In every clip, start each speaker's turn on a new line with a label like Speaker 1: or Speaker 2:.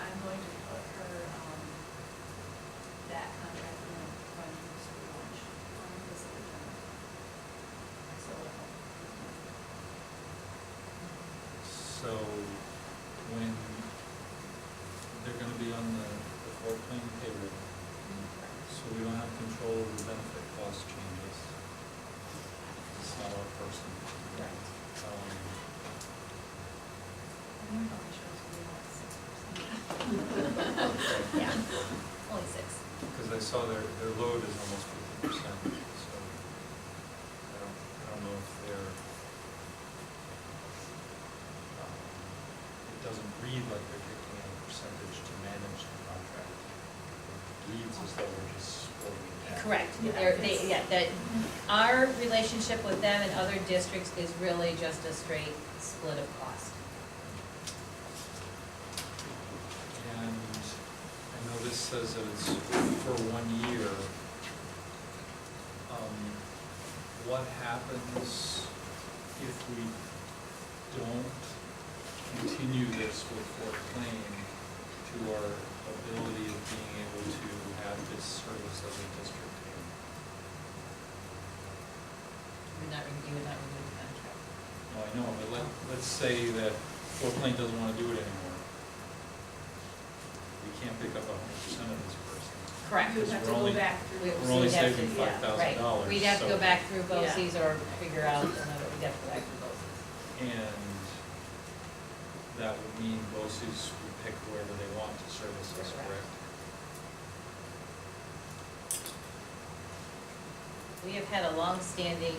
Speaker 1: um,
Speaker 2: be on the the floodplain payroll, so we don't have control of the benefit cost changes. It's not our person.
Speaker 1: Correct.
Speaker 2: Um,
Speaker 1: Only shows we want six
Speaker 2: but-
Speaker 1: Yeah, only six.
Speaker 2: Because I saw their, their load is almost fifty percent, so I don't, I don't know if they're, um, it doesn't read like they're taking any percentage to manage the contract. It reads as though we're just splitting it down.
Speaker 3: Correct,
Speaker 1: Yeah.
Speaker 3: they're, they, yeah, that, our relationship with them and other districts is really just a straight split of cost.
Speaker 2: And I know this says that it's for one year. Um, What happens if we don't continue this with Fort Plain to our ability of being able to have this service as a district?
Speaker 3: We're not, you would not renew the contract.
Speaker 2: No, I know, but let, let's say that Fort Plain doesn't want to do it anymore. We can't pick up a hundred percent of this person.
Speaker 3: Correct.
Speaker 1: You would have to
Speaker 2: We're only-
Speaker 1: go back through.
Speaker 2: We're only
Speaker 3: We'd have to-
Speaker 2: saving
Speaker 1: yeah,
Speaker 2: five thousand
Speaker 3: Right,
Speaker 2: dollars.
Speaker 3: we'd have to go back through
Speaker 1: Yeah.
Speaker 3: BOCES or figure out another, we'd have to go back through BOCES.
Speaker 2: And that would mean BOSI's would pick whoever they want to service us,
Speaker 3: Correct.
Speaker 2: correct?
Speaker 3: We have had a long-standing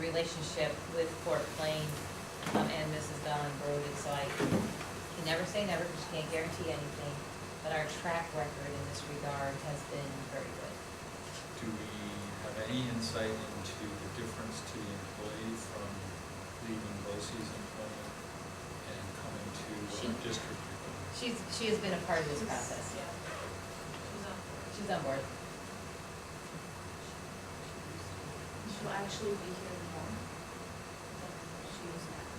Speaker 3: relationship with Fort Plain um, and Mrs. Dallin Brody, so I can never say never, because you can't guarantee anything, but our track record in this regard has been very good.
Speaker 2: Do we have any insight into the difference to the employee from leaving BOSI's employment and coming to
Speaker 3: She-
Speaker 2: our district? employment?
Speaker 3: She's, she has been a part of this process.
Speaker 1: Yeah. She's on board.
Speaker 3: She's on board.
Speaker 1: She'll actually be here more than she is now.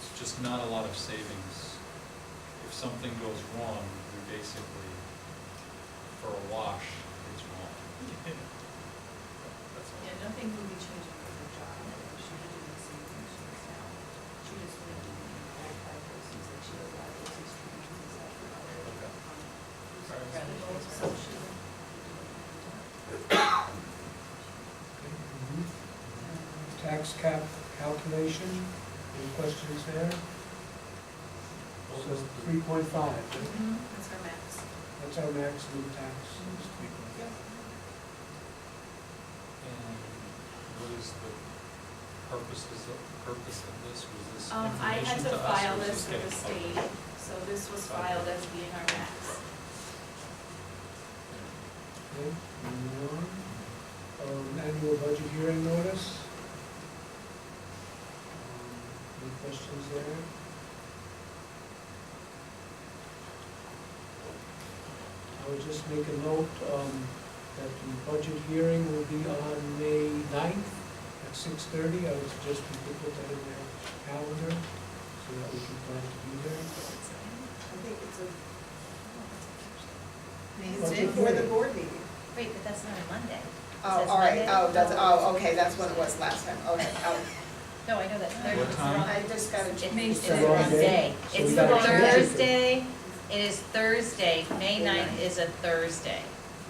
Speaker 2: It's just not a lot of savings. If something goes wrong, we basically, for a wash, it's wrong. That's all.
Speaker 1: Yeah, nothing will be changing with her job. She would do the same thing she is now. She just would be back by persons that she allowed those who's trying to decide for other.
Speaker 2: Okay.
Speaker 1: um, So she would.
Speaker 4: Tax cap calculation, any questions there? So three point five,
Speaker 1: That's her max.
Speaker 4: that's our maximum tax, is three point five.
Speaker 2: And what is the purpose, is the purpose of this, was this
Speaker 1: Um, I had
Speaker 2: information
Speaker 1: to
Speaker 2: to us?
Speaker 1: file
Speaker 2: or was
Speaker 1: this with the
Speaker 2: getting
Speaker 1: state,
Speaker 2: published?
Speaker 1: so this was filed as being our max.
Speaker 4: Okay, moving on. Um, annual budget hearing notice. Um, Any questions there? I would just make a note, um, that the budget hearing will be on May ninth at six thirty. I would suggest people put that in their calendar so that we can plan to be there.
Speaker 5: I think it's a.
Speaker 4: It's Budget
Speaker 5: For the
Speaker 4: hearing.
Speaker 5: board meeting.
Speaker 3: Wait, but that's not a Monday. Is
Speaker 5: Oh,
Speaker 3: that
Speaker 5: all
Speaker 3: Monday?
Speaker 5: right, oh, that's, oh, okay, that's what it was last time, okay, oh.
Speaker 3: No, I know that Thursday.
Speaker 2: What
Speaker 3: it's
Speaker 2: time?
Speaker 3: wrong.
Speaker 5: I just got a
Speaker 3: It-
Speaker 5: change.
Speaker 3: It's
Speaker 4: It's the wrong
Speaker 3: Thursday.
Speaker 4: day. So
Speaker 3: It's
Speaker 4: we gotta
Speaker 5: change it.
Speaker 3: Thursday, it is Thursday, May ninth is a Thursday.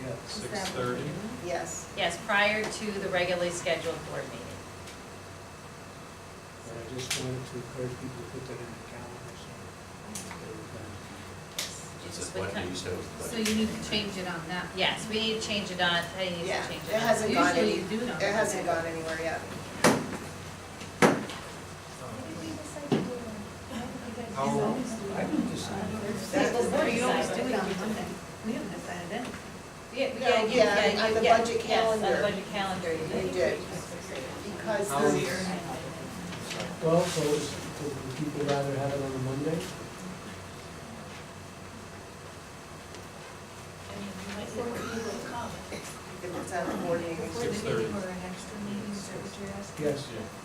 Speaker 4: Yes.
Speaker 2: Six thirty,
Speaker 5: Yes,
Speaker 3: Yes, prior to the regularly scheduled board meeting.
Speaker 4: And I just wanted to encourage people to put that in their calendar so they would plan to be there.
Speaker 3: It's
Speaker 6: It's
Speaker 3: just
Speaker 6: a
Speaker 3: been
Speaker 6: Monday,
Speaker 3: kind-
Speaker 6: so it's like-
Speaker 7: So you need to change it on that.
Speaker 3: Yes, we need to change it on, I need to change
Speaker 5: yeah,
Speaker 3: it
Speaker 5: it
Speaker 3: on.
Speaker 5: hasn't gone any,
Speaker 7: Usually you do know.
Speaker 5: it hasn't gone anywhere yet.
Speaker 2: um,
Speaker 1: How?
Speaker 2: How-
Speaker 4: I didn't decide.
Speaker 5: That's-
Speaker 7: Well, you always do it on Monday. We haven't decided anything.
Speaker 3: Yeah,
Speaker 5: No,
Speaker 3: yeah, you-
Speaker 5: yeah,
Speaker 3: yeah,
Speaker 5: on
Speaker 3: you-
Speaker 5: the
Speaker 3: yeah,
Speaker 5: budget
Speaker 3: yes, on the
Speaker 5: calendar.
Speaker 3: budget calendar.
Speaker 5: You did, because
Speaker 2: How
Speaker 5: this
Speaker 2: is-
Speaker 5: year,
Speaker 4: Well, so is- would would people rather have it on a Monday?
Speaker 1: I mean, you might think we will come.
Speaker 5: if it's on the board meeting,
Speaker 2: Um, Six thirty.
Speaker 7: Or an extra meeting, is that what you're asking?
Speaker 4: Yes.
Speaker 2: Yeah.